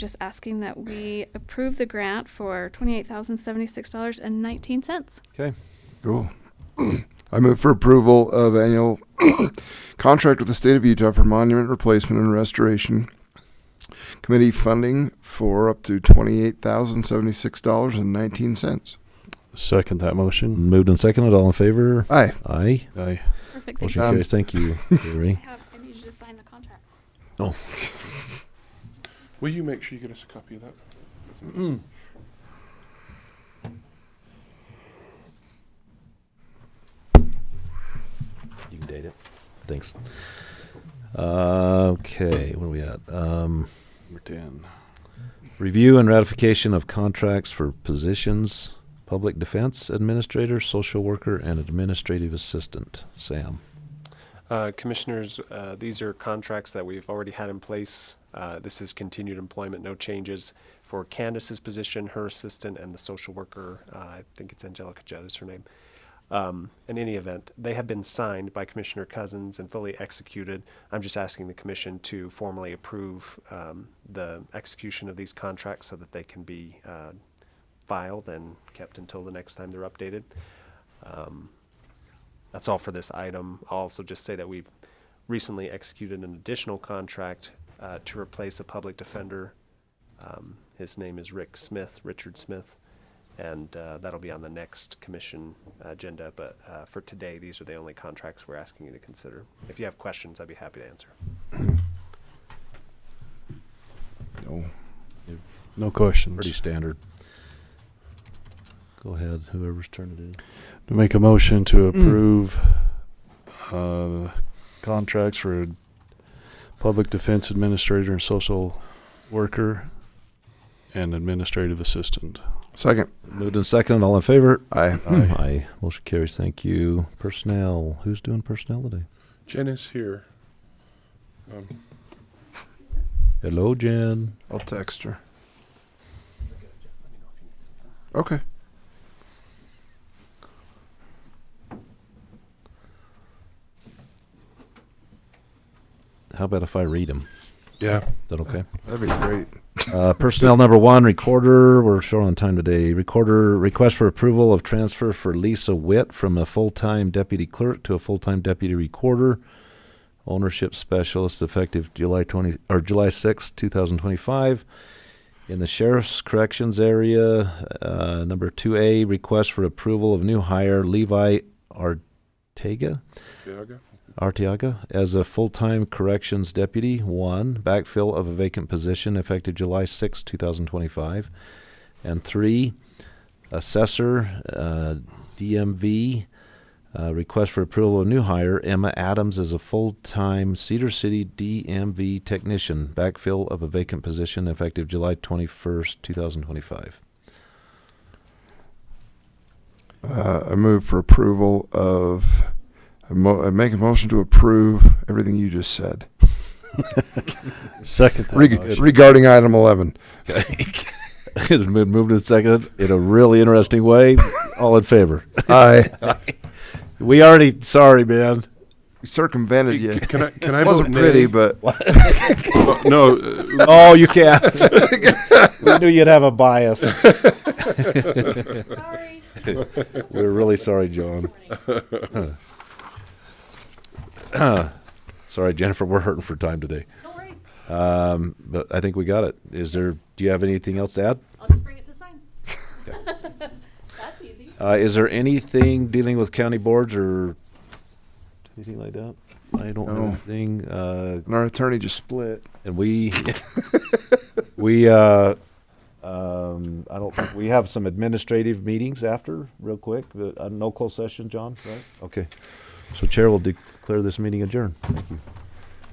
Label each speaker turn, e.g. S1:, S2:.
S1: just asking that we approve the grant for $28,076.19.
S2: Okay.
S3: Cool. I move for approval of annual contract with the state of Utah for monument replacement and restoration committee funding for up to twenty-eight thousand seventy-six dollars and nineteen cents.
S2: Second that motion.
S4: Moved and seconded. All in favor?
S3: Aye.
S4: Aye.
S2: Aye.
S1: Perfect. Thank
S4: Motion
S1: you.
S3: Um,
S4: carries. Thank you,
S1: I
S4: Gary.
S1: have, I need you to sign the contract.
S5: Will you make sure you get us a copy of that?
S4: You can date it. Thanks. Uh, okay, what are we at? Um,
S2: Number 10.
S4: review and ratification of contracts for positions: public defense administrator, social worker, and administrative assistant. Sam.
S6: Uh, Commissioners, uh, these are contracts that we've already had in place. Uh, This is continued employment, no changes for Candace's position, her assistant, and the social worker. uh, I think it's Angelica Judd is her name. Um, In any event, they have been signed by Commissioner Cousins and fully executed. I'm just asking the commission to formally approve um, the execution of these contracts so that they can be uh, filed and kept until the next time they're updated. That's all for this item. I'll also just say that we've recently executed an additional contract uh, to replace a public defender. Um, His name is Rick Smith, Richard Smith, and uh, that'll be on the next commission agenda. But uh, for today, these are the only contracts we're asking you to consider. If you have questions, I'd be happy to answer.
S3: No.
S2: No questions.
S4: Pretty standard. Go ahead, whoever's turn it is. Mm.
S2: To make a motion to approve uh, contracts for public defense administrator and social worker and administrative assistant.
S3: Second.
S4: Moved and seconded. All in favor?
S3: Aye.
S2: Aye.
S4: Aye. Motion carries. Thank you. Personnel. Who's doing personnel today?
S5: Jen is here. Um,
S4: Hello, Jen.
S3: I'll text her. Okay.
S4: How about if I read them?
S5: yeah.
S4: Is that okay?
S3: That'd be great.
S4: Uh, personnel number one, recorder. We're short on time today. Recorder request for approval of transfer for Lisa Witt from a full-time deputy clerk to a full-time deputy recorder, ownership specialist, effective July twenty or July sixth, two thousand twenty-five. In the sheriff's corrections area, uh, number two A, request for approval of new hire Levi Artega.
S5: Tiago?
S4: Arteaga as a full-time corrections deputy, one, backfill of a vacant position effective July 6, 2025. And three, assessor, uh, DMV, uh, request for approval of new hire, Emma Adams as a full-time Cedar City DMV technician, backfill of a vacant position effective July 21st, 2025.
S3: Uh, I move for approval of, I mo- I make a motion to approve everything you just said.
S2: Second that
S3: Reg- regarding item eleven.
S4: It's been moved and seconded in a really interesting way. All in favor?
S3: Aye.
S4: We already, sorry, man.
S3: Circumvented you.
S5: C- Can I, can I
S3: It wasn't
S5: vote
S3: pretty,
S5: nay?
S3: but
S5: Oh, No, uh,
S4: Oh, you can. we knew you'd have a bias.
S1: Sorry.
S4: We're really sorry, John. sorry, Jennifer. We're hurting for time today,
S1: No worries.
S4: um, but I think we got it. Is there? Do you have anything else to add?
S1: I'll just bring it to sign. That's easy.
S4: Uh, is there anything dealing with county boards or anything like that? I don't know
S3: No.
S4: anything. Uh,
S3: and our attorney just split.
S4: and we we uh um i don't think we have some administrative meetings after real quick but uh, no closed session john right okay so chair will declare this meeting adjourned thank you